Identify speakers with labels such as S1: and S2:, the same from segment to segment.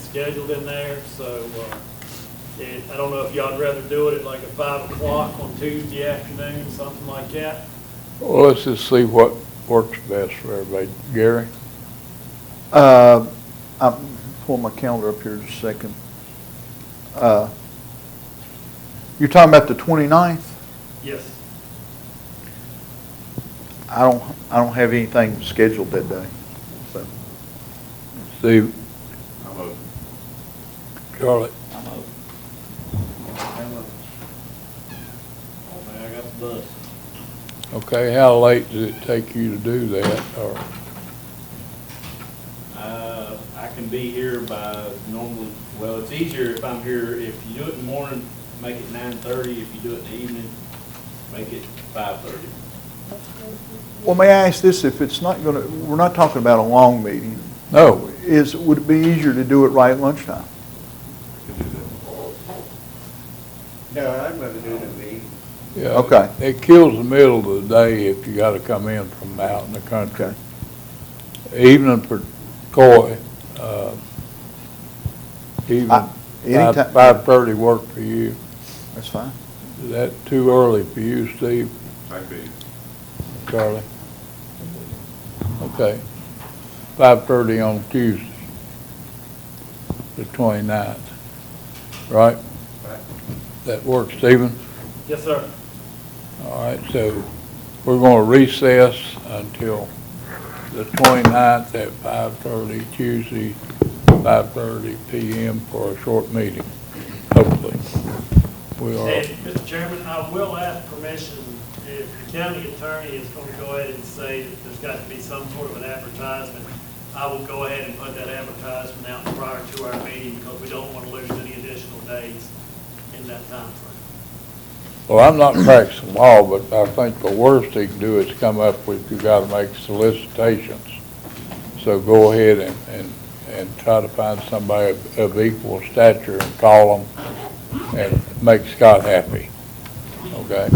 S1: scheduled in there, so, uh, it, I don't know if y'all'd rather do it at like a five o'clock on Tuesday afternoon, something like that.
S2: Well, let's just see what works best for everybody. Gary?
S3: Uh, I'll pull my calendar up here just a second. Uh, You're talking about the 29th?
S1: Yes.
S3: I don't, I don't have anything scheduled that day, so.
S2: Steve?
S4: I'm open.
S2: Charlotte?
S1: Oh, man, I got the bus.
S2: Okay, how late does it take you to do that, or,
S4: Uh, I can be here by normally, well, it's easier if I'm here, if you do it in the morning, make it nine thirty, if you do it in the evening, make it five thirty.
S3: Well, may I ask this, if it's not going to, we're not talking about a long meeting.
S2: No.
S3: Is, would it be easier to do it right at lunchtime?
S5: No, I'd rather do it in the evening.
S2: yeah?
S3: Okay.
S2: It kills the middle of the day if you gotta come in from out in the country. Evening for Coy, uh,
S3: I-
S2: even
S3: anytime-
S2: five-thirty work for you.
S3: That's fine.
S2: Is that too early for you, Steve,
S4: I'd be.
S2: Charlie? Okay. Five-thirty on Tuesday, the 29th. right?
S5: Right.
S2: That works, Stephen?
S1: Yes, sir.
S2: All right, so we're going to recess until the 29th at 5:30, Tuesday, 5:30 PM for a short meeting, hopefully. We are,
S1: And, Mr. Chairman, I will ask permission if the county attorney is going to go ahead and say that there's got to be some sort of an advertisement. I will go ahead and put that advertisement out prior to our meeting because we don't want to lose any additional days in that time frame.
S2: well, I'm not practicing law, but I think the worst he can do is come up with, you got to make solicitations. So go ahead and, and, and try to find somebody of- of equal stature and call them and make Scott happy, okay?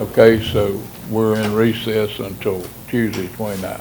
S2: Okay, so we're in recess until Tuesday 29th.